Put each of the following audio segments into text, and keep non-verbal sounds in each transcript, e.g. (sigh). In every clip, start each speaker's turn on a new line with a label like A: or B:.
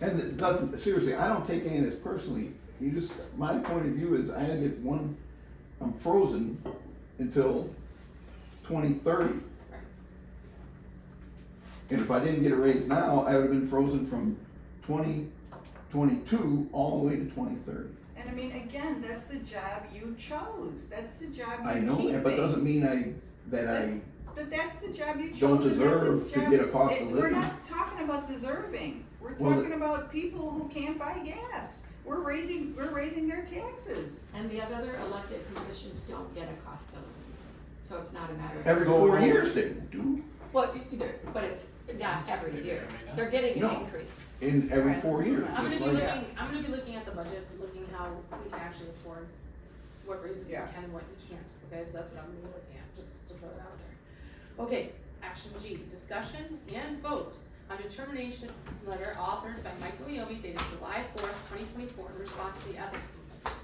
A: And doesn't, seriously, I don't take any of this personally, you just, my point of view is I had to get one, I'm frozen until twenty thirty. And if I didn't get a raise now, I would've been frozen from twenty twenty-two all the way to twenty thirty.
B: And I mean, again, that's the job you chose, that's the job
A: I
B: you're
A: know
B: keeping.
A: that, but doesn't mean I, that I,
B: That's- But that's the job you
A: Don't
B: chose and that's the
A: deserve to
B: job-
A: get a cost
B: it-
A: of
B: We're
A: living.
B: not talking about deserving, we're
A: Well, the-
B: talking about people who can't buy gas, we're raising, we're raising their taxes.
C: And the other elected positions don't get a cost of living, so it's not a matter of.
A: every four years they do,
C: Well, either, but it's not every year, they're getting an
A: No.
C: increase.
A: in every four years,
D: I'm gonna
A: just
D: be
A: like.
D: looking, I'm gonna be looking at the budget, looking how we can actually afford what raises we
B: Yeah.
D: can, what we can't, okay, so that's what I'm gonna be looking at, just to throw it out there. Okay, action G, discussion and vote on determination letter authored by Michael Yobi dated July fourth, twenty twenty-four, in response to the ethics complaint.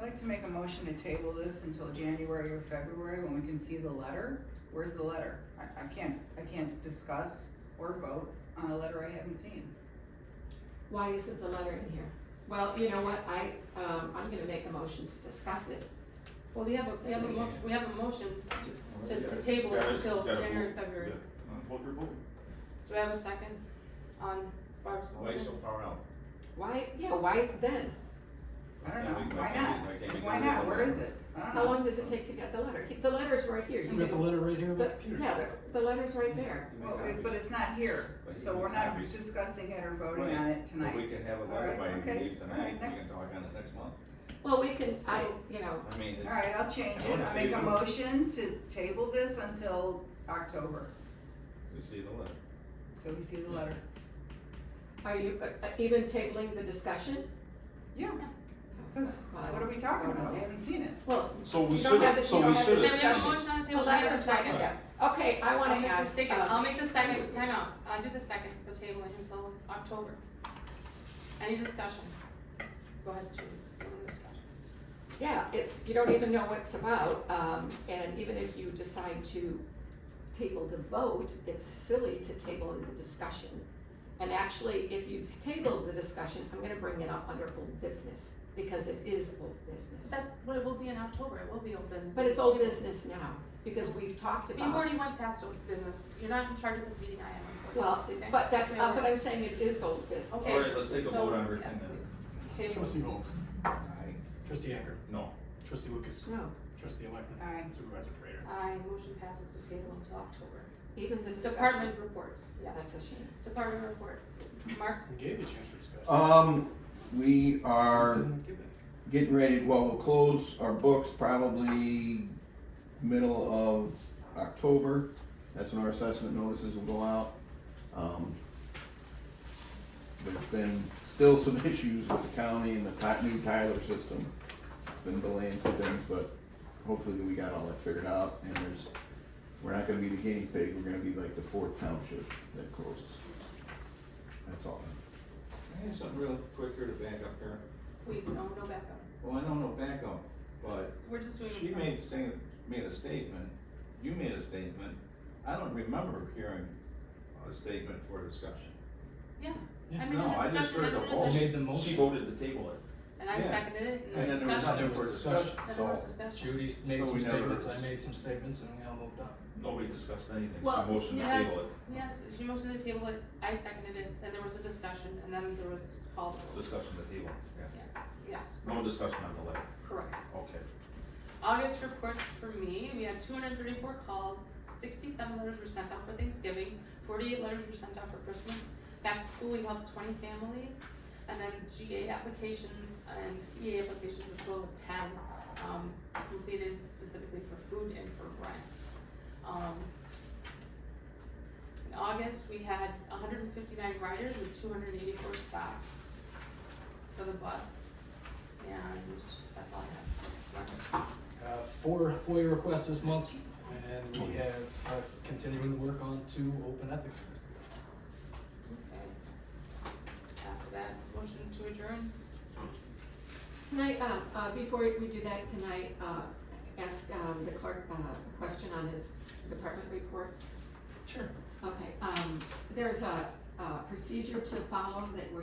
B: I'd like to make a motion to table this until January or February when we can see the letter, where's the letter? I, I can't, I can't discuss or vote on a letter I haven't seen.
C: Why isn't the letter in here? Well, you know what, I, um, I'm gonna make a motion to discuss it.
D: Well, we have a, we have a mo- we have a motion to, to table
E: Yeah, it's-
D: until
E: yeah, we'll-
D: January, February.
E: What we're voting.
D: Do I have a second on Barb's
F: Why
D: motion?
F: so far out?
C: Why, yeah, why then?
B: I don't
F: Yeah, we-
B: know,
F: why
B: why
F: can't
B: not?
F: we- why can't we
B: Why
F: do this
B: not,
F: on
B: where
F: our
B: is it? I don't know.
C: How long does it take to get the letter? He- The letter's right here.
G: You got the
C: can-
G: letter right here on the
C: the-
G: computer?
C: Yeah, the, the letter's right there.
F: You make
B: Well, it-
F: copies.
B: but it's not here,
F: But you
B: so
F: can
B: we're not
F: copy.
B: discussing it or voting on it
F: But we
B: tonight.
F: can have a
B: All
F: letter
B: right,
F: by
B: okay.
F: leave
B: All
F: tonight,
B: right,
F: we can
B: next.
F: talk on it next month.
C: Well, we can, I, you know,
F: I mean, it-
B: Alright, I'll change it, I'll make a motion to table this until October,
F: we see the letter.
B: till we see the letter.
C: are you uh, uh, even tabling the discussion?
B: Yeah, cause
C: Well, I
B: what are
C: don't-
B: we talking
C: I don't
B: about? We
C: know.
B: haven't seen it.
C: Well,
E: So we
C: You don't
E: should
C: have
E: have,
C: the-
E: so
C: you
E: we
C: don't have
E: should
C: the
D: Then we have
E: have.
D: a
C: discussion.
D: motion on the
C: the
D: table, do I have a
C: letter's right
D: second?
C: there. Okay, I wanna
D: I'll
C: ask,
D: make the second,
C: uh,
D: I'll make the second, time out, I'll do the second for tabling until October. Any discussion? Go ahead, Julie, any discussion?
C: Yeah, it's, you don't even know what it's about, um, and even if you decide to table the vote, it's silly to table the discussion. And actually, if you table the discussion, I'm gonna bring it up under old business, because it is old business.
D: That's what it will be in October, it will be old business.
C: But it's old business now, because we've talked
D: You've
C: about,
D: already went past old business, you're not in charge of this meeting, I am unfortunately.
C: well,
D: Okay.
C: but that's,
D: So-
C: uh, but I'm saying it is old business.
D: Okay.
F: Alright, let's take a
D: So-
F: vote on everything
D: Yes,
F: then.
D: please, table.
G: Trustee Bowles,
F: Aye.
G: trustee Acker,
E: No,
G: trustee Lucas,
C: No,
G: trustee Electman,
B: Alright,
G: supervisor Prater.
D: Aye, motion passes to table until October.
C: even the discussion.
D: Department reports,
C: That's
D: yes,
C: a shame.
D: department reports, Mark,
G: We gave you a chance for discussion.
A: Um, we are
G: Didn't give it.
A: getting ready, well, we'll close our books probably middle of October. That's when our assessment notices will go out. Um, There's been still some (laughs) issues with the county and the Ty- new Tyler system. It's Been delaying some things, but hopefully we got all that figured out and there's, we're not gonna be the guinea pig, we're gonna be like the fourth township that closes. That's all.
F: I have something real quicker to back up here.
D: we, no, no backup,
F: Well, I don't know backup, but
D: we're just
B: Mm-hmm.
D: doing.
F: she made, sing- made a statement, you made a statement. I don't remember hearing a statement for discussion.
D: Yeah,
G: Yeah.
D: I mean,
F: No,
D: the
F: I just
D: discussion
F: heard
D: is
F: the
D: a
G: You
F: whole.
D: discussion,
G: made the
E: she
G: motion.
E: voted to table it.
D: and I
F: Yeah.
D: seconded it,
F: And
D: and
F: then there was
G: There
D: discussion,
F: nothing
G: was
F: for
G: discussion.
F: discussion,
D: then there was
F: so.
D: discussion.
G: Judy made
F: So
G: some
F: we never-
G: statements, I made some statements, and we all moved on.
E: Nobody discussed anything,
C: Well,
E: she motioned to
D: Yes,
E: table
D: yes, she motioned to table it, I seconded it, then there was a discussion, and then there was called,
E: it, discussion to table, yeah.
D: yes,
E: No discussion on the letter,
D: correct.
E: okay.
D: August reports for me, we had two hundred and thirty-four calls, sixty-seven letters were sent out for Thanksgiving, forty-eight letters were sent out for Christmas. Back to school, we helped twenty families, and then GA applications and EA applications, a total of ten, um, completed specifically for food and for rent. Um, in August, we had hundred and fifty-nine riders with two hundred and eighty-four stops for the bus, and that's all I have.
G: Uh, four FOIA requests this month, and we have uh, continuing to work on two open ethics investigations.
D: After that, motion to adjourn?
C: Can I, uh, uh, before we do that, can I, uh, ask, um, the clerk, uh, a question on his department report?
G: Sure.
C: Okay, um, there's a, uh, procedure to follow that we're